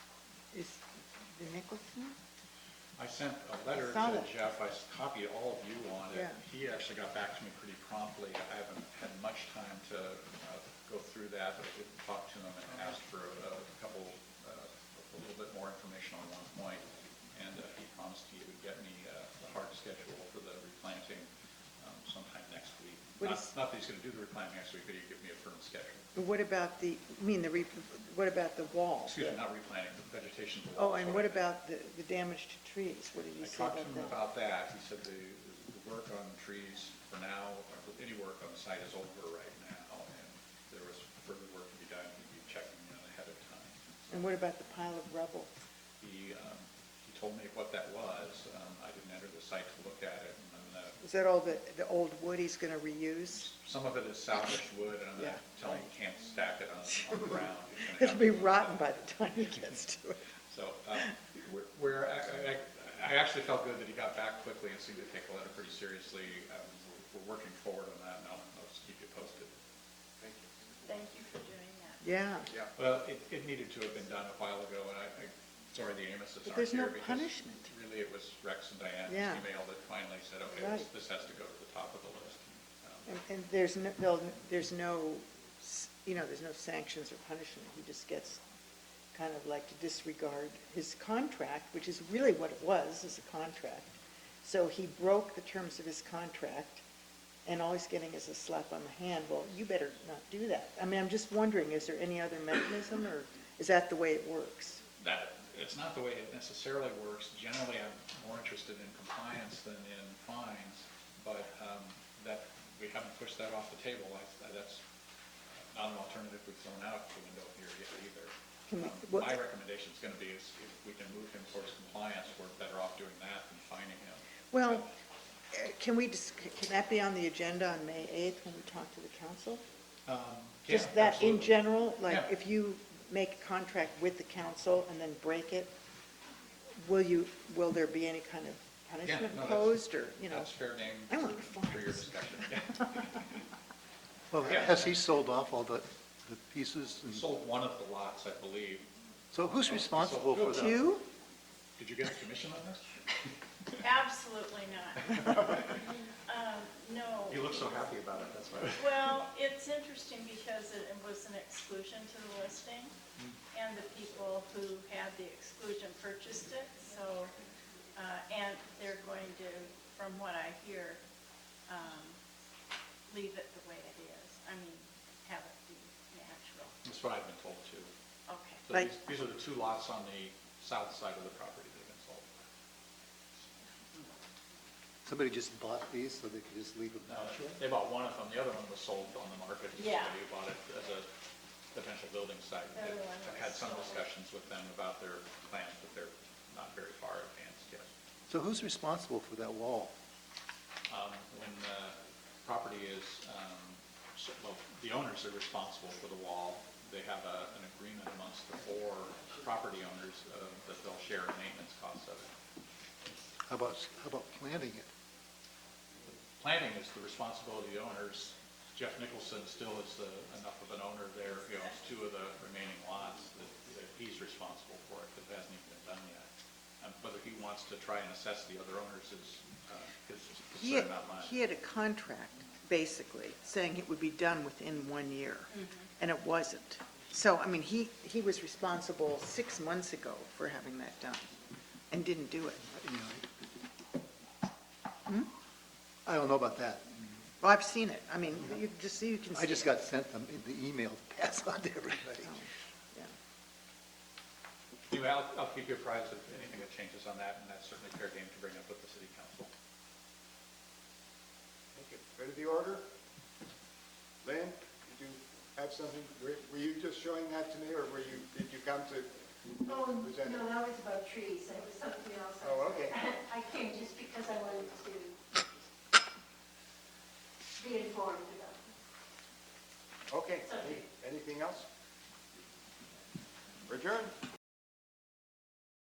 is the Nicholson? I sent a letter I saw to that. Jeff, I s- copied all of you on it. Yeah. He actually got back to me pretty promptly. I haven't had much time to uh, go through that, but I did talk to him and asked for a a couple, uh, a little bit more information on one point. And uh, he promised he would get me uh, the hard schedule for the replanting um, sometime next week. What Not is- not that he's going to do the replanting next week, but he'd give me a firm schedule. But what about the, I mean, the, re- what about the wall? Excuse me, not replanting, the vegetation. Oh, and what sorry. about the, the damage to trees? What did you I say talked to him about that? about that, he said the, the work on trees for now, or any work on the site is over right now, and there was further work to be done, he'd be checking in ahead of time. And what about the pile of rubble? He, um, he told me what that was, um, I didn't enter the site to look at it, and I'm gonna, Is that all the, the old wood he's gonna reuse? some of it is salvaged wood, and Yeah, I'm gonna tell him you can't stack it on, on the ground. It's gonna It'll be have to- rotten by the time he gets to it. So, um, we're- we're, I, I, I actually felt good that he got back quickly and seemed to take the letter pretty seriously. Um, we're- We're working forward on that, and I'll, I'll just keep you posted. Thank you. Thank you for doing that. Yeah, Yeah, Well, it, it needed to have been done a while ago, and I, I, sorry the Amoses But aren't there's no here. because punishment. Really, it was Rex and Diane's Yeah. email that finally said, okay, this, Right. this has to go to the top of the list. Um, and, and there's no, there'll- there's no, s- you know, there's no sanctions or punishment. He just gets kind of like to disregard his contract, which is really what it was, is a contract. So he broke the terms of his contract, and all he's getting is a slap on the hand. Well, you better not do that. I mean, I'm just wondering, is there any other mechanism, or is that the way it works? That, it's not the way it necessarily works. Generally, I'm more interested in compliance than in fines, but, um, that, we haven't pushed that off the table. I- That's not an alternative we've thrown out the window here yet either. Can we- Um, what- My recommendation's gonna be is if we can move him towards compliance, we're better off doing that than fining him. Well, uh, can we, dis- can that be on the agenda on May 8th when we talk to the council? Yeah, Just that in absolutely. general, like Yeah. if you make a contract with the council and then break it, will you, will there be any kind of Yeah, punishment no, that's- imposed or, you know? That's fair game I want for for your fines. discussion. Well, Yeah. has he sold off all the, the pieces? We and- Sold one of the lots, I believe. So who's responsible for that? Two? Did you get a commission on this? Absolutely not. Um, No. You look so happy about it, that's why. Well, it's interesting because it was an exclusion to the listing, and the people who had the exclusion purchased it, so, uh, and they're going to, from what I hear, um, leave it the way it is. I mean, have it be natural. That's what I've been told too. Okay. So Like- these, these are the two lots on the south side of the property that have been sold. Somebody just bought these so they could just leave them No, out? They bought one of them, the other one was sold on the market. to Yeah. Somebody who bought it as a potential building site. The other one I've had was some sold. discussions with them about their plans, but they're not very far advanced yet. So who's responsible for that wall? Um, When the property is, um, so- well, the owners are responsible for the wall. They have a, an agreement amongst the four property owners uh, that they'll share in maintenance costs of it. How about, how about planting it? planning is the responsibility of the owners. Jeff Nicholson still is the, enough of an owner there, he owns two of the remaining lots, that, that he's responsible for it, because it hasn't even been done yet. Um, Whether he wants to try and assess the other owners is, uh, his He had, concern, not mine. he had a contract, basically, saying it would be done within one year, and it wasn't. So, I mean, he, he was responsible six months ago for having that done, and didn't do it. You Hmm? know? I don't know about that. Well, I've seen it, I mean, you just, you can see I just it. got sent them, the email to pass on to everybody. Oh, yeah. Anyway, I'll, I'll keep you apprised of anything that changes on that, and that's certainly fair game to bring up with the city council. thank you. Ready the order? Lynn, did you have something, were were you just showing that to me, or were you, did you come to Oh, present it? no, that was about trees, that was something else. Oh, okay. I came just because I wanted to be informed about it. Okay, any- anything else? Return?